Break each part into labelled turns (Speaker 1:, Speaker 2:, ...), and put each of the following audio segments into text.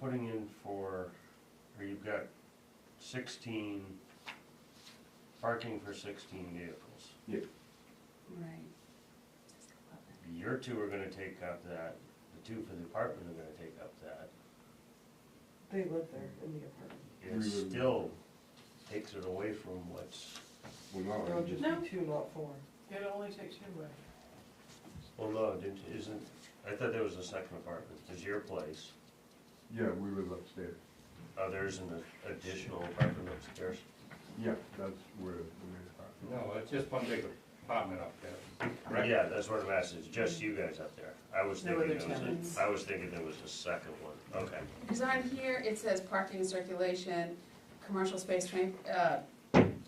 Speaker 1: putting in for, or you've got sixteen, parking for sixteen vehicles.
Speaker 2: Right.
Speaker 1: Your two are gonna take up that, the two for the apartment are gonna take up that.
Speaker 3: They live there in the apartment.
Speaker 1: It
Speaker 4: We would-
Speaker 1: still takes it away from what's,
Speaker 4: Well, no,
Speaker 3: There
Speaker 4: I
Speaker 3: would
Speaker 4: just,
Speaker 3: just be two, not four.
Speaker 5: It only takes two away.
Speaker 1: well, no, didn't, isn't, I thought there was a second apartment, there's your place,
Speaker 4: yeah, we live upstairs.
Speaker 1: oh, there's an additional apartment upstairs.
Speaker 4: Yeah, that's where the main apartment.
Speaker 6: No, it's just one big apartment up there, correct?
Speaker 1: Yeah, that's what I'm asking, it's just you guys up there, I was
Speaker 5: No
Speaker 1: thinking
Speaker 5: other
Speaker 1: there was,
Speaker 5: tenants.
Speaker 1: a- I was thinking there was a second one, okay.
Speaker 2: Because on here, it says parking and circulation, commercial space, twenty, uh,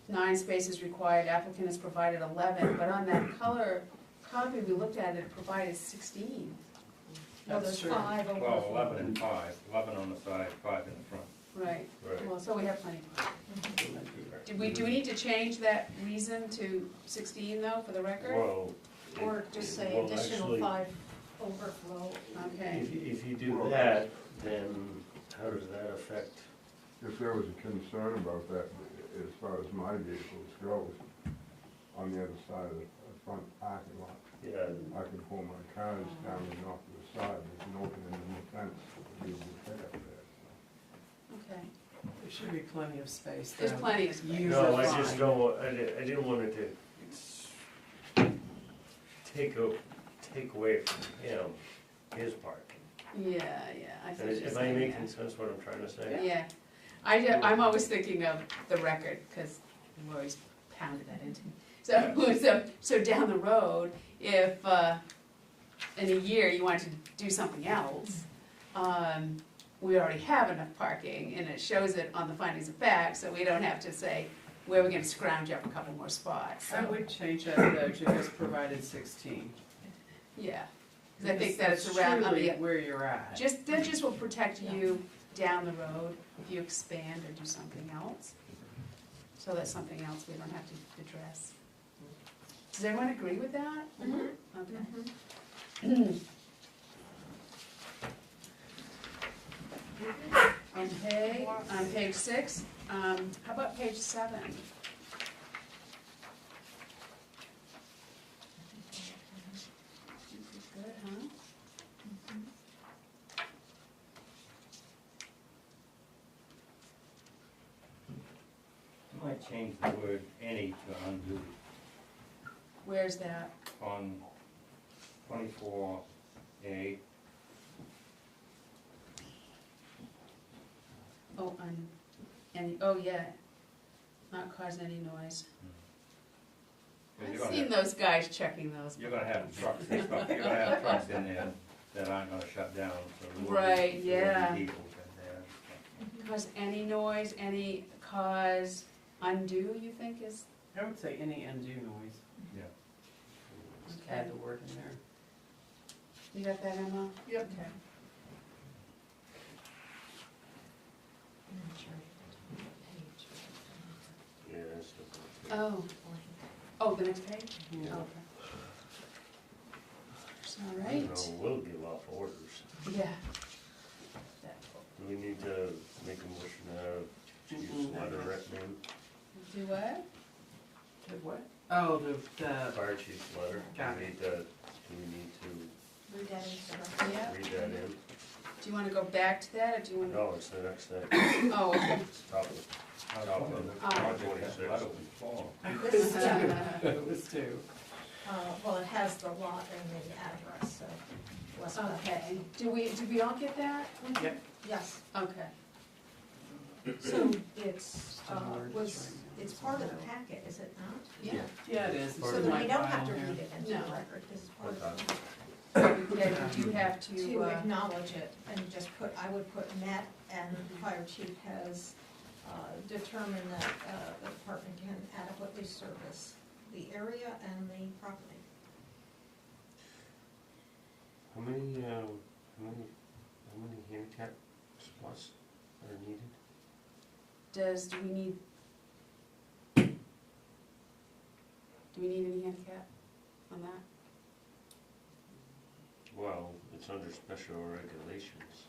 Speaker 2: nine spaces required, applicant has provided eleven, but on that color copy we looked at, it provided sixteen. Well, there's
Speaker 5: That's true.
Speaker 2: five over.
Speaker 6: Well, eleven and five, eleven on the side, five in the front.
Speaker 2: Right,
Speaker 1: Right.
Speaker 2: well, so we have plenty. Did we, do we need to change that reason to sixteen though, for the record?
Speaker 1: Well. it-
Speaker 7: Or just say
Speaker 1: well,
Speaker 7: additional
Speaker 1: actually,
Speaker 7: five overflow.
Speaker 2: Okay,
Speaker 1: If, if you do that, then how does that affect,
Speaker 4: If there was a concern about that, as far as my vehicles goes, on the other side of the the front parking lot,
Speaker 1: yeah,
Speaker 4: I can pull my cars down and off to the side, there's an opening in the fence, you would fit up there.
Speaker 2: okay.
Speaker 5: There should be plenty of space there.
Speaker 2: There's plenty of space.
Speaker 5: Use
Speaker 1: No,
Speaker 5: it
Speaker 1: I just
Speaker 5: fine.
Speaker 1: don't, wa- I didn't, I didn't want it to s- take a, take away from him, his part.
Speaker 2: Yeah, yeah, I think she's
Speaker 1: Am I
Speaker 2: saying
Speaker 1: making
Speaker 2: that.
Speaker 1: sense what I'm trying to say?
Speaker 2: Yeah, I, ju- I'm always thinking of the record, because Lori's pounded that into me. So, so, so down the road, if, uh, in a year you wanted to do something else, um, we already have enough parking, and it shows it on the findings of fact, so we don't have to say, where we're gonna scrounge up a couple more spots,
Speaker 5: I
Speaker 2: so,
Speaker 5: would change that though to just provided sixteen.
Speaker 2: yeah. Because I think that
Speaker 5: Because
Speaker 2: it's around, on
Speaker 5: truly
Speaker 2: the,
Speaker 5: Where you're at.
Speaker 2: just, that just will protect you down the road if you expand or do something else. So that's something else we don't have to address. Does everyone agree with that? Okay. On page, on page six, um, how about page seven? This is good, huh?
Speaker 6: You might change the word any to undo
Speaker 2: Where's that?
Speaker 6: on twenty-four A,
Speaker 2: Oh, on, and, oh, yeah, not causing any noise. I've
Speaker 6: because you're gonna
Speaker 2: seen
Speaker 6: have,
Speaker 2: those guys checking those.
Speaker 6: you're gonna have trucks and stuff, you're gonna have trucks in there that aren't gonna shut down, so. there will be-
Speaker 2: Right,
Speaker 6: there will be
Speaker 2: yeah.
Speaker 6: People in there.
Speaker 7: Mm-hmm.
Speaker 2: Cause any noise, any cause undue, you think is,
Speaker 5: I would say any undue noise, just
Speaker 2: okay,
Speaker 5: add the word in there.
Speaker 2: you got that, Emma?
Speaker 5: Yep.
Speaker 2: Okay.
Speaker 1: Yeah, that's the-
Speaker 2: Oh, oh, the next page?
Speaker 5: Yeah.
Speaker 2: Okay. All
Speaker 1: you know,
Speaker 2: right,
Speaker 1: We'll give off orders.
Speaker 2: yeah.
Speaker 1: Do we need to make a motion to have
Speaker 5: Mm-hmm.
Speaker 1: Chief's
Speaker 5: Mm-mm.
Speaker 1: letter written
Speaker 2: Do what?
Speaker 5: The what? Oh, the,
Speaker 1: in,
Speaker 5: the,
Speaker 1: fire chief's letter? Do we
Speaker 5: Got it.
Speaker 1: need to- Do we need to
Speaker 7: Read that into the record.
Speaker 2: Yeah,
Speaker 1: read that in?
Speaker 2: do you wanna go back to that, or do you wanna?
Speaker 1: No, it's the next thing,
Speaker 2: Oh, okay.
Speaker 1: it's top of
Speaker 6: I was wondering if
Speaker 2: Oh.
Speaker 6: the project had a lot of fall.
Speaker 7: This is, uh,
Speaker 5: it was two.
Speaker 7: well, it has the lot and the address, so. what's up?
Speaker 2: Okay, do we, did we all get that?
Speaker 5: Yep.
Speaker 7: Yes,
Speaker 2: Okay.
Speaker 7: so it's, uh,
Speaker 5: Hard to
Speaker 7: was,
Speaker 5: find out.
Speaker 7: it's part of the packet, is it not?
Speaker 2: Yeah.
Speaker 5: Yeah, it is. It's
Speaker 7: So
Speaker 5: in
Speaker 7: that
Speaker 5: my
Speaker 7: we don't have
Speaker 5: file
Speaker 7: to
Speaker 5: here.
Speaker 7: read it into the
Speaker 2: No.
Speaker 7: record, because it's part of the.
Speaker 2: Yeah, you do have to,
Speaker 7: to
Speaker 2: uh,
Speaker 7: acknowledge it and just put, I would put Matt and Fire Chief has uh, determined that uh, the department can adequately service the area and the property.
Speaker 1: How many, uh, how many, how many handicap spots are needed?
Speaker 2: does, do we need? Do we need any handicap on that?
Speaker 1: Well, it's under special regulations.